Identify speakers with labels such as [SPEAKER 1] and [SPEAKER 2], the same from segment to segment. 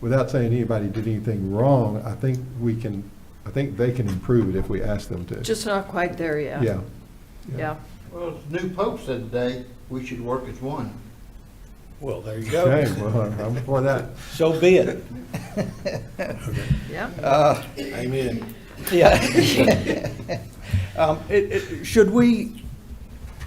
[SPEAKER 1] without saying anybody did anything wrong, I think we can, I think they can improve it if we ask them to.
[SPEAKER 2] Just not quite there yet.
[SPEAKER 1] Yeah.
[SPEAKER 2] Yeah.
[SPEAKER 3] Well, as the new pope said today, we should work as one.
[SPEAKER 4] Well, there you
[SPEAKER 1] Okay,
[SPEAKER 4] go.
[SPEAKER 1] well, I'm for that.
[SPEAKER 4] So be it.
[SPEAKER 2] Yeah.
[SPEAKER 4] Amen.
[SPEAKER 5] Yeah. Um, it- it- Should we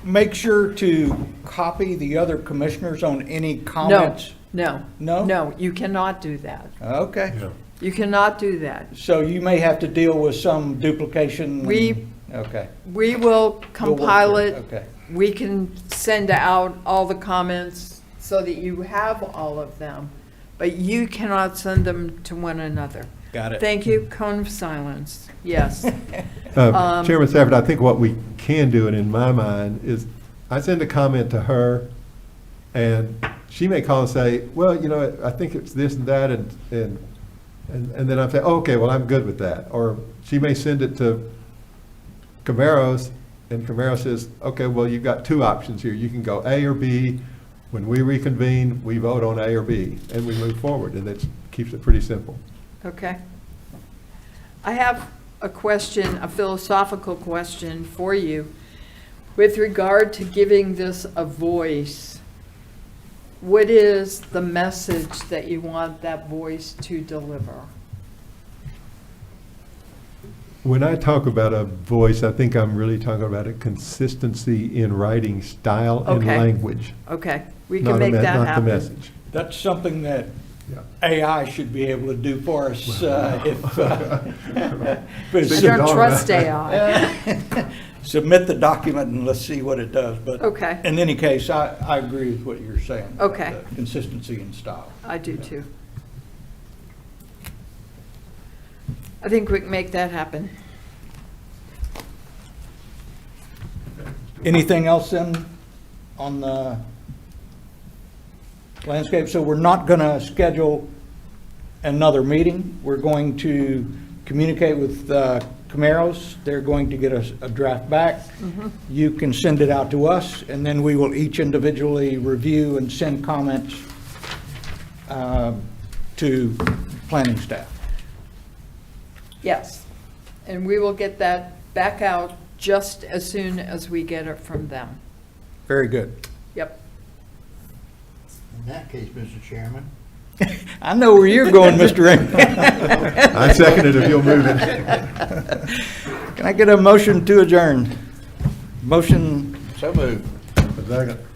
[SPEAKER 5] make sure to copy the other commissioners on any
[SPEAKER 2] No,
[SPEAKER 5] comments?
[SPEAKER 2] no.
[SPEAKER 5] No?
[SPEAKER 2] No, you cannot do that.
[SPEAKER 5] Okay,
[SPEAKER 4] Yeah.
[SPEAKER 2] You cannot do that.
[SPEAKER 5] so you may have to deal with some duplication.
[SPEAKER 2] We-
[SPEAKER 5] Okay.
[SPEAKER 2] We will
[SPEAKER 5] We'll work
[SPEAKER 2] compile
[SPEAKER 5] with
[SPEAKER 2] it.
[SPEAKER 5] Okay,
[SPEAKER 2] We can send out all the comments so that you have all of them, but you cannot send them to one another.
[SPEAKER 5] got it.
[SPEAKER 2] Thank you, cone of silence. Yes.
[SPEAKER 1] Uh,
[SPEAKER 2] Um,
[SPEAKER 1] Chairman Safford, I think what we can do, and in my mind, is I send a comment to her, and she may call and say, well, you know, I think it's this and that, and, and, and and then I say, "Oh, okay, well, I'm good with that. Or she may send it to Camaros, and Camaros says, okay, well, you've got two options here. You can go A or B. When we reconvene, we vote on A or B, and we move forward, and that keeps it pretty simple.
[SPEAKER 2] Okay. I have a question, a philosophical question for you with regard to giving this a voice. What is the message that you want that voice to deliver?
[SPEAKER 1] When I talk about a voice, I think I'm really talking about a consistency in writing style and
[SPEAKER 2] Okay.
[SPEAKER 1] language.
[SPEAKER 2] Okay, we
[SPEAKER 1] not
[SPEAKER 2] can
[SPEAKER 1] a
[SPEAKER 2] make
[SPEAKER 1] me-
[SPEAKER 2] that
[SPEAKER 1] Not the
[SPEAKER 2] happen.
[SPEAKER 1] message.
[SPEAKER 5] That's something that
[SPEAKER 1] Yeah.
[SPEAKER 5] AI should be able to do for us uh, if, uh, if
[SPEAKER 1] Big
[SPEAKER 2] I
[SPEAKER 5] it's-
[SPEAKER 1] Sit
[SPEAKER 2] don't
[SPEAKER 1] down.
[SPEAKER 2] trust AI.
[SPEAKER 5] submit the document and let's see what it does, but.
[SPEAKER 2] Okay.
[SPEAKER 5] In any case, I, I agree with what you're saying. about
[SPEAKER 2] Okay.
[SPEAKER 5] the Consistency in style.
[SPEAKER 2] I do too. I think we can make that happen.
[SPEAKER 5] Anything else then on the landscape? So we're not going to schedule another meeting. We're going to communicate with uh, Camaros. They're going to get us a draft back. You can send it out to us, and then we will each individually review and send comments um, to planning staff.
[SPEAKER 2] Yes, and we will get that back out just as soon as we get it from them.
[SPEAKER 5] Very good.
[SPEAKER 2] Yep.
[SPEAKER 3] In that case, Mr. Chairman,
[SPEAKER 5] I know where you're going, Mr. Ray.
[SPEAKER 1] I second it if you'll move it.
[SPEAKER 5] Can I get a motion to adjourn? Motion
[SPEAKER 3] so moved.
[SPEAKER 1] Second.